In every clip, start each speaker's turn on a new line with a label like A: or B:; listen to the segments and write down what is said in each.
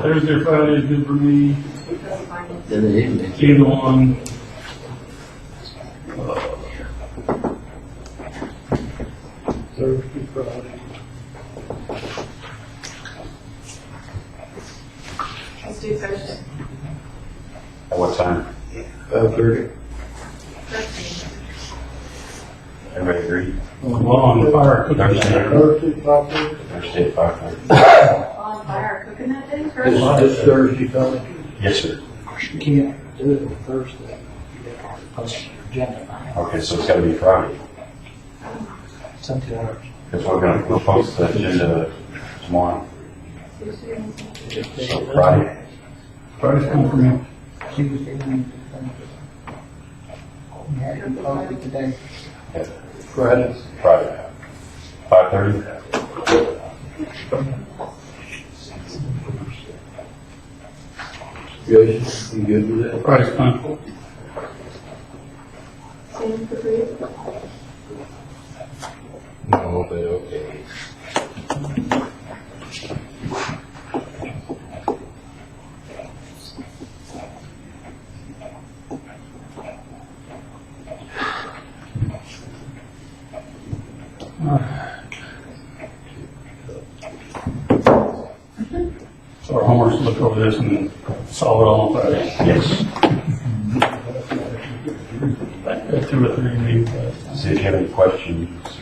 A: Thursday or Friday is good for me,
B: in the evening.
A: either one.
C: Thursday, Friday.
D: Let's do Thursday.
E: At what time?
B: Five thirty?
D: Thursday.
E: Everybody agree?
A: Well, on the fire cooking there.
C: Thursday, Friday.
E: Thursday at five thirty?
D: On fire cooking that day
B: This,
D: first?
B: this Thursday coming?
E: Yes, sir.
C: You can't do it on Thursday. You gotta Post your agenda,
E: Okay, so it's gotta be Friday,
C: seventy hours.
E: because we're gonna, we'll post the agenda tomorrow, so Friday.
A: Friday's coming for me.
C: Tuesday, Wednesday, Thursday. You had to post it today.
E: Yeah,
B: Friday.
E: Friday. Five thirty?
B: Jason, you good with that?
A: Friday's fine.
D: Same for three.
B: No, but okay.
A: So our homework's to look over this and solve it all on Friday.
E: Yes.
A: Like, Two or three meetings. uh,
E: See if you have any questions.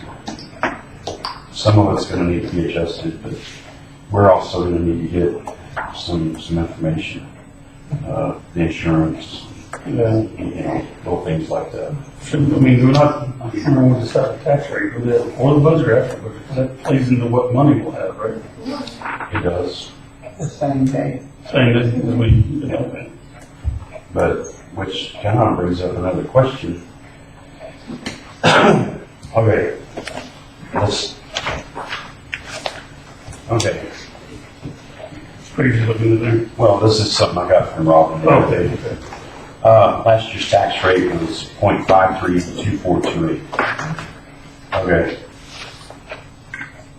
E: Some of it's gonna need to be adjusted, but we're also gonna need to get some, some information. Uh, the insurance,
A: Yeah.
E: you know, little things like that.
A: Should- I mean, we're not, I'm sure we'll decide the tax rate for that, or the budget after, but that plays into what money we'll have, right?
E: It does.
C: The same day.
A: Saying that, as we, you know,
E: But, which kind of brings up another question. Okay, let's, okay,
A: it's crazy looking in there.
E: well, this is something I got from Robin. Uh, last year's tax rate was point five three two four two eight. Okay.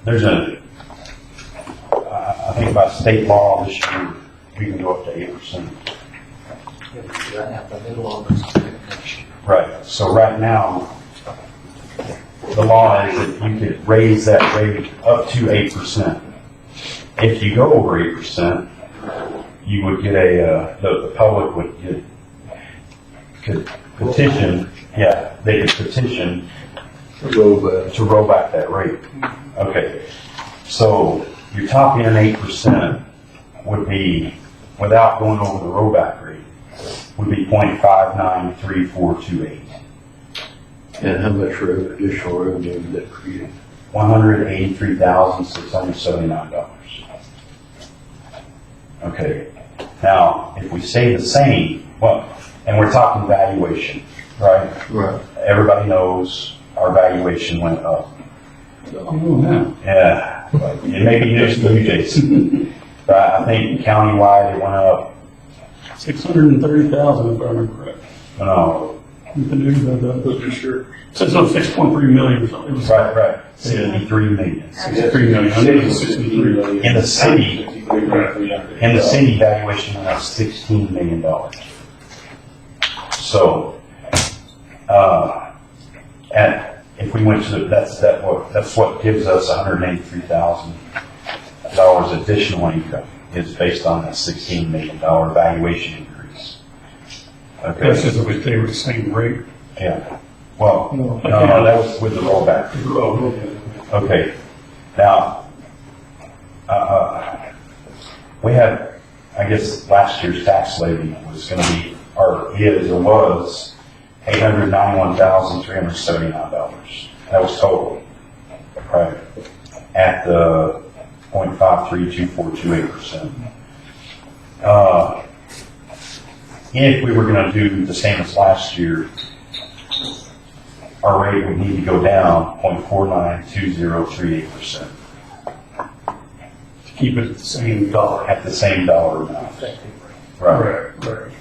E: There's a, I, I think by state law this year, we can go up to eight percent.
B: Right now, the middle of us.
E: Right, so right now, the law is that you could raise that rate up to eight percent. If you go over eight percent, you would get a, uh, the, the public would get, could petition, yeah, they could petition
B: Robot.
E: to roll back that rate. Okay, so your top end eight percent would be, without going over the rollback rate, would be point five nine three four two eight.
B: And how much rev- additional revenue would that create?
E: one hundred eighty-three thousand, six hundred seventy-nine dollars. Okay, now, if we say the same, well, and we're talking valuation, right?
B: Right.
E: Everybody knows our valuation went up.
A: Oh, yeah.
E: Yeah, but it may be news to you, Jason. But I think countywide, it went up,
A: Six hundred and thirty thousand, if I remember correct.
E: no,
A: The news had that.
B: sure.
A: So it's not six point three million or something. It was
E: right, right, sixty-three million.
A: sixty-three million. I think it was sixty-three million.
E: In the city,
A: Right.
E: In the city, valuation went up sixteen million dollars. So, uh, and if we went to, that's, that what, that's what gives us hundred and eighty-three thousand dollars additional income, is based on that sixteen million dollar valuation increase.
A: That's
E: Okay,
A: just if we stay with the same rate.
E: yeah, well, no,
A: No.
E: no, that was with the rollback.
A: Oh,
E: Okay, now, uh, uh, we had, I guess, last year's tax levy was gonna be, or is, or was, eight hundred ninety-one thousand, three hundred seventy-nine dollars. That was total, right? At the point five three two four two eight percent. Uh, if we were gonna do the same as last year, our rate would need to go down 0.492038 percent
A: To keep it at the same dollar.
E: at the same dollar amount. Right,
A: right.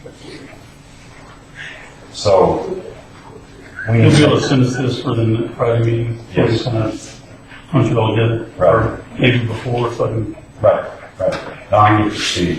E: so. we
A: You'll
E: need
A: be able to send us this for the Friday meeting. so we
E: Yes.
A: kind of Punch it all together.
E: Right.
A: Or Maybe before, so I can
E: Right, right. Now I need to see.